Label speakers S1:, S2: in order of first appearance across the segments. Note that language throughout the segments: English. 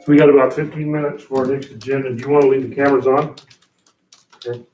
S1: So we got about fifteen minutes for our next agenda. Do you want to leave the cameras on? Okay.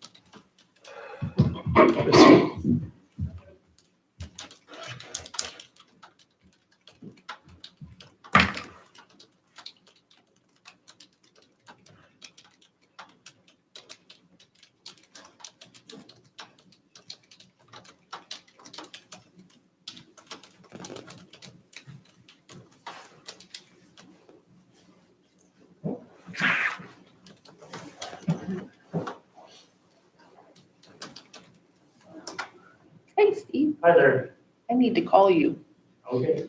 S2: Hey, Steve,
S3: Hi there.
S2: I need to call you.
S3: Okay.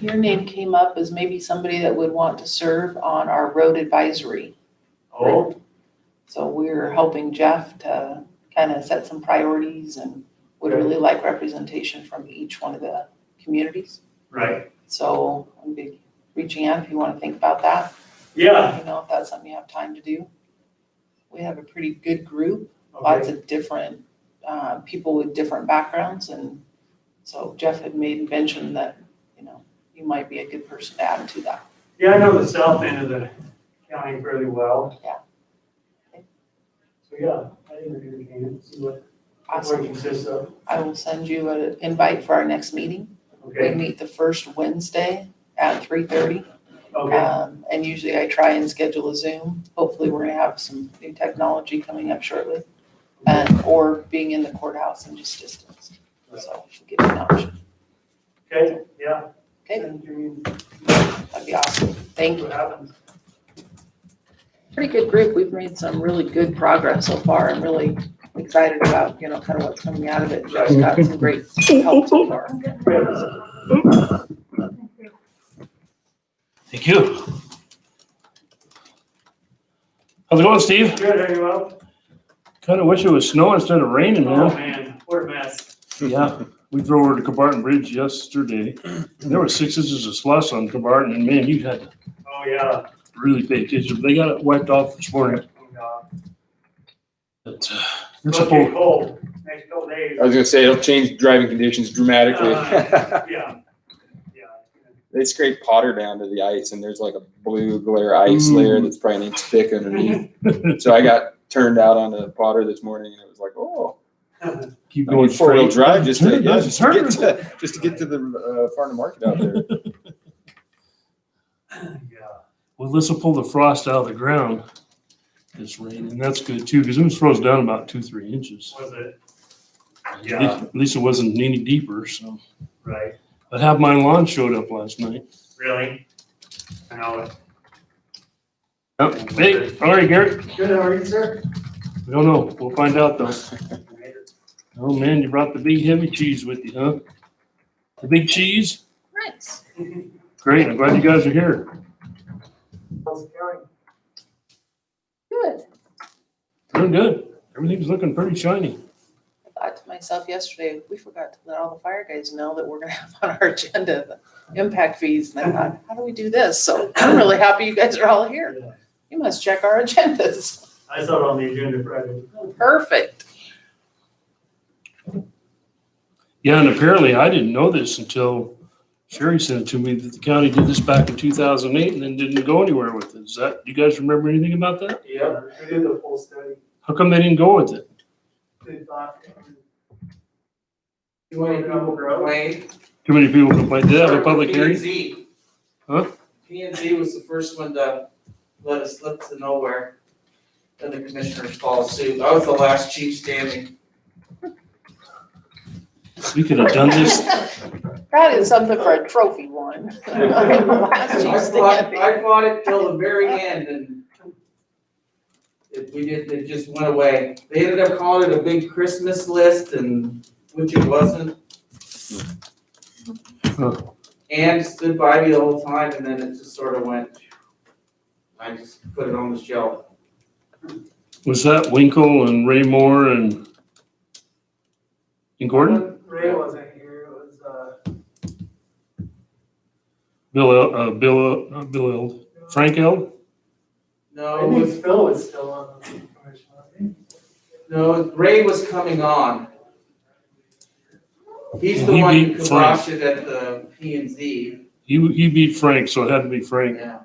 S2: Your name came up as maybe somebody that would want to serve on our road advisory.
S3: Oh,
S2: So we're helping Jeff to kind of set some priorities and would really like representation from each one of the communities.
S3: right.
S2: So I'm be reaching out if you want to think about that.
S3: Yeah.
S2: Let me know if that's something you have time to do. We have a pretty good group. lots
S3: Okay.
S2: of different, uh, people with different backgrounds, and so Jeff had made mention that, you know, you might be a good person to add to that.
S3: Yeah, I know the south end of the county fairly well.
S2: Yeah.
S3: So, yeah, I think we're gonna can see what, what it
S2: Awesome.
S3: consists of.
S2: I will send you an invite for our next meeting. We
S3: Okay,
S2: meet the first Wednesday at three thirty.
S3: okay,
S2: Um, and usually I try and schedule a Zoom. Hopefully, we're gonna have some new technology coming up shortly. And, or being in the courthouse and just distance, so give you an option.
S3: okay, yeah.
S2: Okay,
S3: Send you
S2: that'd be awesome. Thank you.
S3: what happens.
S2: pretty good group. We've made some really good progress so far. I'm really excited about, you know, kind of what's coming out of it. Joe's got some great help so far.
S1: Thank you. How's it going, Steve?
S3: Good, how you well?
S1: Kind of wish it was snow instead of raining,
S3: Oh,
S1: man.
S3: man, what a mess.
S1: Yeah, we drove over to Cabarton Bridge yesterday. There were six inches of slush on Cabarton, and man, you had to
S3: Oh, yeah.
S1: really pay attention. They got it wiped off this morning.
S3: Oh, God.
S1: But, uh, It's a
S3: It'll
S1: full,
S3: get cold next couple days.
S4: I was gonna say it'll change driving conditions dramatically.
S3: Uh, Yeah, yeah.
S4: they scrape Potter down to the ice, and there's like a blue glare ice
S1: Mm.
S4: layer that's probably an inch thick underneath. so I got turned out on the Potter this morning, and it was like, oh,
S1: keep
S4: I mean,
S1: going
S4: four wheel
S1: straight.
S4: drive just to,
S1: Turn,
S4: yeah,
S1: doesn't
S4: just, to get
S1: turn.
S4: to, just to get to the uh, farm to market out there.
S3: Yeah.
S1: Well, this will pull the frost out of the ground, this rain, and that's good too, because it was froze down about two, three inches.
S3: Was it?
S1: At
S3: Yeah.
S1: least- At least it wasn't any deeper, so.
S3: Right,
S1: I had my lawn showed up last night.
S3: really? I know it.
S1: Oh, Hey, all right, Garrett,
S3: Good, how are you, sir?
S1: we don't know, we'll find out though.
S3: Alright.
S1: Oh man, you brought the big heavy cheese with you, huh? The big cheese?
S2: Nice.
S1: Great, I'm glad you guys are here.
S3: How's it going?
S2: Good.
S1: Doing good. Everything's looking pretty shiny.
S2: I thought to myself yesterday, we forgot to let all the fire guys know that we're gonna have on our agenda the impact fees. And I thought, how do we do this? So I'm really happy you guys are all here.
S3: Yeah.
S2: You must check our agendas.
S3: I saw it on the agenda Friday.
S2: Perfect.
S1: Yeah, and apparently I didn't know this until Sherry sent it to me that the county did this back in two thousand eight and then didn't go anywhere with it. Is that, do you guys remember anything about that?
S3: Yeah, we did the full study.
S1: How come they didn't go with it?
S3: They thought. You want to double grow?
S5: Wayne.
S1: Too many people complained. Did they have a public
S5: P and
S1: hearing?
S5: Z.
S1: Huh?
S5: P and Z was the first one to let us slip to nowhere. Then the commissioners followed suit. I was the last chief standing.
S1: We could have done this.
S2: That is something for a trophy one. Last
S5: I
S2: chief
S5: fought,
S2: standing.
S5: I fought it till the very end and it, we did, it just went away. They ended up calling it a big Christmas list and, which it wasn't.
S1: Huh.
S5: And stood by me the whole time and then it just sort of went. I just put it on the shelf.
S1: Was that Winkle and Ray Moore and and Gordon?
S3: Ray wasn't here, it was, uh.
S1: Bill, El- uh, Bill, El- not Bill, Eld. Frank Eld?
S5: No,
S3: I
S5: it was,
S3: think Phil was still on the commission, I think.
S5: no, Ray was coming on. He's the
S1: He
S5: one who
S1: beat Frank.
S5: kiboshed it at the P and Z,
S1: He, he beat Frank, so it had to be Frank.
S5: yeah.